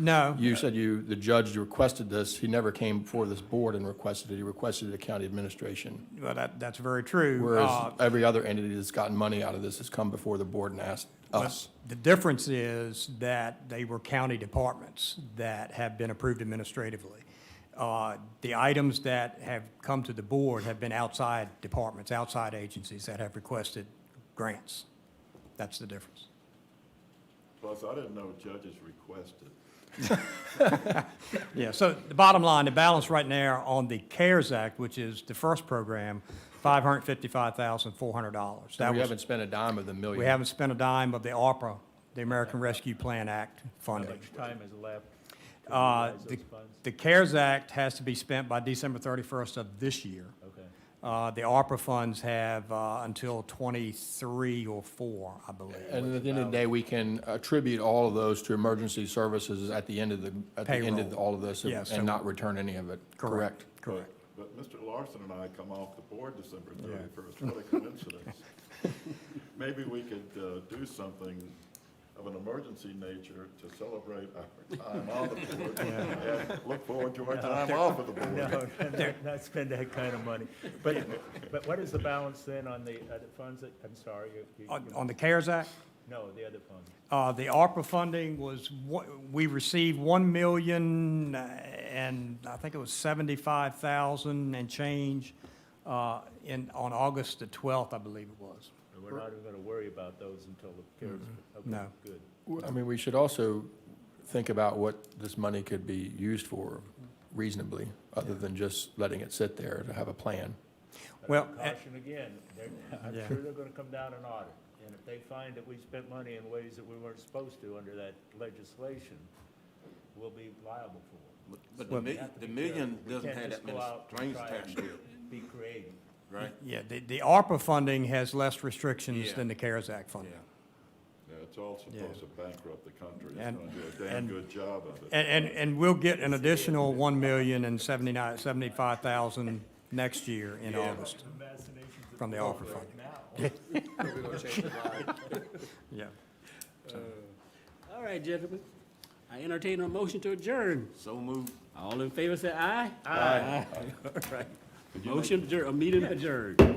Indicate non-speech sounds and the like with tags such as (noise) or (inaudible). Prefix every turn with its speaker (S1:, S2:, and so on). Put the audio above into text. S1: No,
S2: You said you, the judge requested this. He never came before this board and requested it. He requested the county administration.
S1: well, that, that's very true.
S2: Whereas
S1: Uh,
S2: every other entity that's gotten money out of this has come before the board and asked us.
S1: The difference is that they were county departments that have been approved administratively. Uh, The items that have come to the board have been outside departments, outside agencies that have requested grants. That's the difference.
S3: Plus, I didn't know judges requested.
S1: Yeah, so the bottom line, the balance right now on the CARES Act, which is the first program, $555,400. That
S2: We
S1: was-
S2: haven't spent a dime of the million.
S1: We haven't spent a dime of the ARPA, the American Rescue Plan Act funding.
S4: time is left to
S1: Uh,
S4: utilize
S1: The
S4: those funds?
S1: the CARES Act has to be spent by December 31st of this year.
S4: Okay.
S1: Uh, The ARPA funds have uh, until 23 or 4, I believe.
S2: And at the end of the day, we can attribute all of those to emergency services at the end of the, at the end of
S1: Payroll.
S2: all of this and-
S1: Yes, so-
S2: and not return any of it, correct?
S1: Correct.
S3: But but Mr. Larson and I come off the board December thirty-first, what a
S1: (laughs)
S3: coincidence. Maybe we could uh, do something of an emergency nature to celebrate our time on the
S1: (laughs)
S3: board and look forward to our time off of the board.
S4: (laughs) No, not- not spend that kind of money. But, but what is the balance then on the other funds? that- I'm sorry, you, you-
S1: On
S4: you-
S1: on the CARES Act,
S4: no, the other funds.
S1: uh, the ARPA funding was, one- we received 1 million uh, and I think it was 75,000 and change uh, in, on August the 12th, I believe it was.
S4: And We're not even going to worry about those until the CARES. okay,
S1: No.
S4: Good.
S2: I mean, we should also think about what this money could be used for reasonably, other than just letting it sit there to have a plan.
S4: But
S1: Well,
S4: I
S1: a-
S4: Caution again, they're, I'm
S1: Yeah.
S4: sure they're going to come down and audit. And if they find that we spent money in ways that we weren't supposed to under that legislation, we'll be liable for it.
S5: But the million, the million doesn't have that many strings attached to it,
S4: Be creative.
S5: right?
S1: Yeah, the, the ARPA funding has less restrictions
S5: Yeah.
S1: than the CARES Act
S5: Yeah.
S1: funding.
S3: Yeah, It's all supposed to bankrupt the country, it's
S1: And-
S3: going to do a damn
S1: and-
S3: good job of it.
S1: And, and, and we'll get an additional one million and seventy-nine, seventy-five thousand next year in August from the ARPA funding. Yeah.
S6: All right, gentlemen. I entertain a motion to adjourn.
S5: So moved.
S6: All in favor, say aye. Aye. All right. Motion adjourned, a meeting adjourned.